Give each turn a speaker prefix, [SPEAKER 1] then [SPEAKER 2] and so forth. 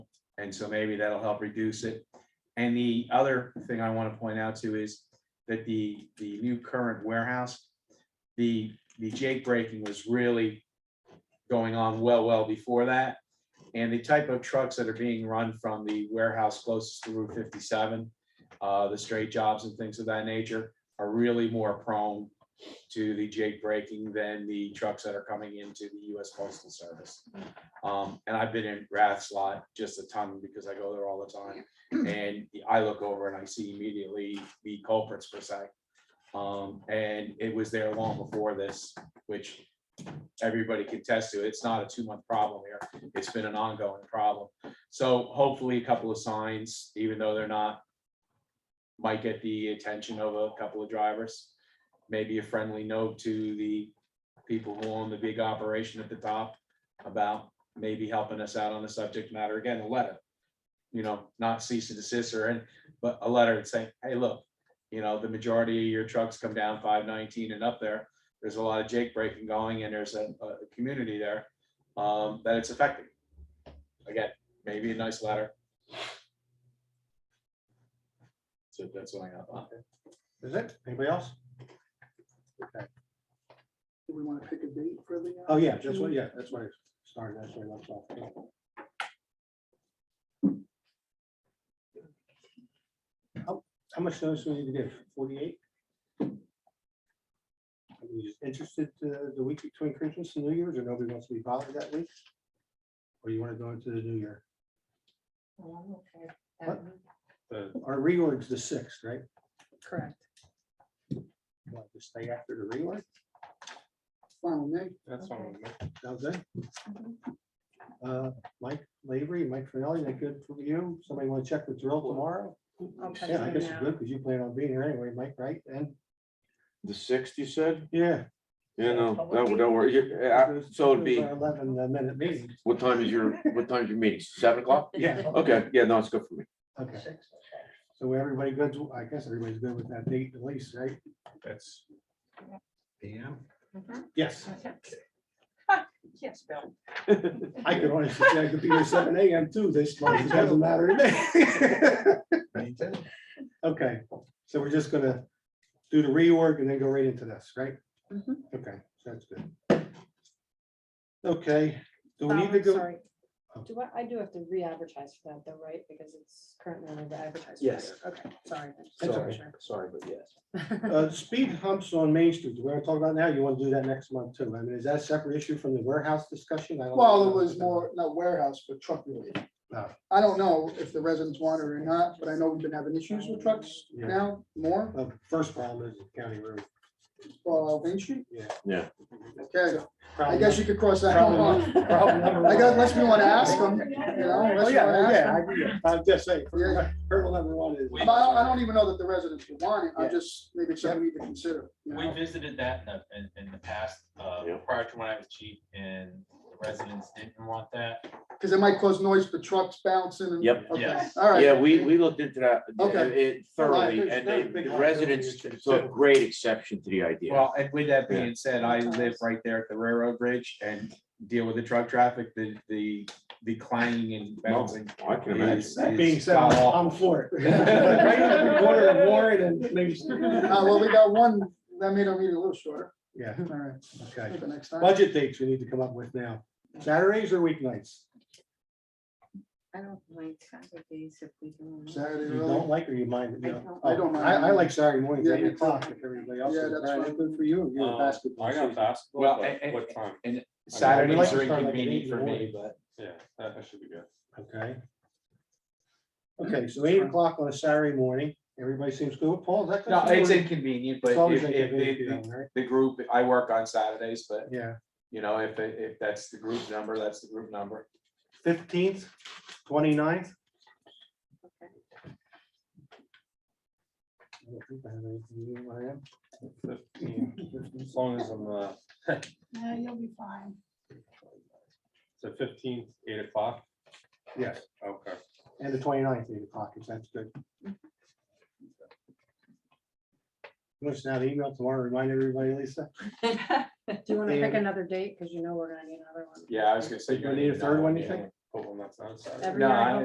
[SPEAKER 1] And so maybe that'll help reduce it. And the other thing I want to point out too is that the, the new current warehouse, the, the jake braking was really going on well, well before that. And the type of trucks that are being run from the warehouse closest to Route fifty-seven, uh, the straight jobs and things of that nature are really more prone to the jake braking than the trucks that are coming into the US Postal Service. Um, and I've been in Rath's lot just a ton because I go there all the time. And I look over and I see immediately the culprits per se. Um, and it was there long before this, which everybody can attest to. It's not a two-month problem here. It's been an ongoing problem. So hopefully a couple of signs, even though they're not, might get the attention of a couple of drivers. Maybe a friendly note to the people who own the big operation at the top about maybe helping us out on the subject matter. Again, a letter. You know, not cease and desist or, any- but a letter and saying, hey, look, you know, the majority of your trucks come down five nineteen and up there. There's a lot of jake breaking going and there's a, a community there, um, that it's affecting. Again, maybe a nice letter. So that's what I got.
[SPEAKER 2] Is it? Anybody else?
[SPEAKER 3] Do we want to pick a date for the? uh,
[SPEAKER 2] Oh, yeah, that's what, yeah, that's where it started, that's where it left off. How, Oh, how much notice we need to give? Forty-eight? Are we just interested uh, the week between Christmas and New Year's, or nobody wants to be bothered that week? Or you want to go into the new year?
[SPEAKER 4] Oh, okay.
[SPEAKER 2] What?
[SPEAKER 4] Um,
[SPEAKER 2] Our reorg's the sixth, right?
[SPEAKER 4] Correct.
[SPEAKER 2] Want to stay after the reorg?
[SPEAKER 3] Final name,
[SPEAKER 2] That's
[SPEAKER 4] fine
[SPEAKER 2] Sounds good.
[SPEAKER 4] Mhm.
[SPEAKER 2] Uh, Mike Lavery, Mike Finelli, that good for you? Somebody want to check with Drill tomorrow?
[SPEAKER 4] I'll touch
[SPEAKER 2] Yeah, I
[SPEAKER 4] on
[SPEAKER 2] guess it's
[SPEAKER 4] that.
[SPEAKER 2] good because you plan on being here anyway, Mike, right? And,
[SPEAKER 5] The sixth, you said?
[SPEAKER 2] yeah.
[SPEAKER 5] Yeah, no,
[SPEAKER 4] Public
[SPEAKER 5] no, don't worry. You- uh,
[SPEAKER 2] those-
[SPEAKER 5] So it'd
[SPEAKER 2] those
[SPEAKER 5] be,
[SPEAKER 2] are Eleven uh, minute meetings.
[SPEAKER 5] what time is your, what time is your meeting? Seven o'clock?
[SPEAKER 2] Yeah.
[SPEAKER 5] Okay, yeah, no, it's good for me.
[SPEAKER 2] Okay. So everybody good, to- I guess everybody's good with that date at least, right?
[SPEAKER 1] That's.
[SPEAKER 4] Mhm.
[SPEAKER 2] Yes.
[SPEAKER 4] Yes, Bill.
[SPEAKER 2] I could honestly say I could be here seven AM too this month. It doesn't matter to me. Okay, so we're just gonna do the reorg and then go right into this, right?
[SPEAKER 4] Mhm.
[SPEAKER 2] Okay, sounds good. Okay, do we
[SPEAKER 4] Um,
[SPEAKER 2] need to
[SPEAKER 4] I'm
[SPEAKER 2] go?
[SPEAKER 4] sorry.
[SPEAKER 2] Oh.
[SPEAKER 4] Do I, I do have to re-advertise for that though, right? Because it's currently under advertised. for
[SPEAKER 6] Yes.
[SPEAKER 4] it. Okay, sorry. I just
[SPEAKER 2] That's
[SPEAKER 4] wasn't
[SPEAKER 2] okay.
[SPEAKER 4] sure.
[SPEAKER 6] Sorry, but yes.
[SPEAKER 2] Uh, speed humps on Main Street, we're gonna talk about now, you wanna do that next month too, I mean, is that a separate issue from the warehouse discussion? I don't
[SPEAKER 3] well, it
[SPEAKER 2] know.
[SPEAKER 3] was more, not warehouse, but truck related.
[SPEAKER 2] Ah.
[SPEAKER 3] I don't know if the residents want it or not, but I know we've been having issues with trucks
[SPEAKER 2] Yeah.
[SPEAKER 3] now more,
[SPEAKER 2] The first problem is the county road.
[SPEAKER 3] well, Main Street.
[SPEAKER 5] Yeah.
[SPEAKER 3] Okay, I guess you could cross that one off.
[SPEAKER 2] Problem- problem number
[SPEAKER 3] I
[SPEAKER 2] one.
[SPEAKER 3] guess unless we want to ask them, you know,
[SPEAKER 2] Oh,
[SPEAKER 3] unless we want to
[SPEAKER 2] yeah,
[SPEAKER 3] ask
[SPEAKER 2] yeah,
[SPEAKER 3] them.
[SPEAKER 2] I agree. I'm just saying,
[SPEAKER 3] Yeah.
[SPEAKER 2] hurdle number one is.
[SPEAKER 3] But I don't, I don't even know that the residents would want it, I
[SPEAKER 2] Yeah.
[SPEAKER 3] just, maybe it's something we need to consider, you
[SPEAKER 7] We
[SPEAKER 3] know?
[SPEAKER 7] visited that in the, in, in the past, uh,
[SPEAKER 5] Yeah.
[SPEAKER 7] prior to when I was chief and the residents didn't want that.
[SPEAKER 3] Because it might cause noise for trucks bouncing and.
[SPEAKER 5] Yep.
[SPEAKER 3] Okay,
[SPEAKER 7] Yes.
[SPEAKER 3] all right.
[SPEAKER 5] Yeah, we, we looked into that uh,
[SPEAKER 3] Okay.
[SPEAKER 5] it thoroughly and they-
[SPEAKER 2] Big
[SPEAKER 5] the residents took great exception to the idea.
[SPEAKER 1] Well, and with that being said, I live right there at the railroad bridge and deal with the truck traffic, the, the, the clanging and bouncing.
[SPEAKER 5] I can
[SPEAKER 1] is-
[SPEAKER 2] That being
[SPEAKER 1] is
[SPEAKER 2] said,
[SPEAKER 1] god awful.
[SPEAKER 2] I'm for it. Right at the Corner of Warren and Main Street.
[SPEAKER 3] Uh, well, we got one, that made our meeting a little shorter,
[SPEAKER 2] Yeah,
[SPEAKER 3] all right,
[SPEAKER 2] okay.
[SPEAKER 3] maybe next time.
[SPEAKER 2] Budget dates we need to come up with now. Saturdays or weeknights?
[SPEAKER 4] I don't like Saturdays if we can.
[SPEAKER 3] Saturday,
[SPEAKER 2] You
[SPEAKER 3] really?
[SPEAKER 2] don't like or you mind? it?
[SPEAKER 4] I
[SPEAKER 2] No.
[SPEAKER 4] don't.
[SPEAKER 2] Oh,
[SPEAKER 3] I don't mind.
[SPEAKER 2] I, I like Saturday mornings,
[SPEAKER 3] Yeah,
[SPEAKER 2] eight
[SPEAKER 3] me too.
[SPEAKER 2] o'clock if everybody else.
[SPEAKER 3] Yeah,
[SPEAKER 2] is.
[SPEAKER 3] that's
[SPEAKER 2] Brian,
[SPEAKER 3] fine.
[SPEAKER 2] Good for you, you're a
[SPEAKER 6] Um,
[SPEAKER 2] basketball.
[SPEAKER 6] I got
[SPEAKER 2] season.
[SPEAKER 6] basketball,
[SPEAKER 1] Well,
[SPEAKER 6] but
[SPEAKER 1] and-
[SPEAKER 6] what time?
[SPEAKER 1] Saturdays are
[SPEAKER 2] Start like at eight in
[SPEAKER 1] inconvenient
[SPEAKER 2] the
[SPEAKER 1] for
[SPEAKER 2] morning.
[SPEAKER 1] me, but
[SPEAKER 6] Yeah, that that should be good.
[SPEAKER 2] Okay. Okay, so eight o'clock on a Saturday morning, everybody seems good. Paul, is that? good
[SPEAKER 1] no,
[SPEAKER 2] for you?
[SPEAKER 1] it's inconvenient, but
[SPEAKER 2] It's always
[SPEAKER 1] if, if the-
[SPEAKER 2] inconvenient,
[SPEAKER 1] the,
[SPEAKER 2] right?
[SPEAKER 1] the group, I work on Saturdays, but
[SPEAKER 2] Yeah,
[SPEAKER 1] you know, if, it- if that's the group number, that's the group number.
[SPEAKER 2] fifteenth, 29th.
[SPEAKER 4] Okay.
[SPEAKER 2] I don't think I have anything new, Ryan.
[SPEAKER 6] As long as I'm, uh,
[SPEAKER 4] Yeah, you'll be fine.
[SPEAKER 6] so fifteen, eight o'clock,
[SPEAKER 2] Yes,
[SPEAKER 6] okay.
[SPEAKER 2] and the 29th, eight o'clock, if that's good. Want to send out an email tomorrow, remind everybody, Lisa?
[SPEAKER 4] Do you want to pick
[SPEAKER 2] Yeah.
[SPEAKER 4] another date? Because you know we're gonna need another one.
[SPEAKER 1] Yeah, I was gonna say.
[SPEAKER 2] You gonna need a third one, you
[SPEAKER 1] yeah.
[SPEAKER 2] think?
[SPEAKER 6] Hope I'm not on Saturday.
[SPEAKER 4] Every
[SPEAKER 1] No,
[SPEAKER 4] night
[SPEAKER 1] I-
[SPEAKER 4] of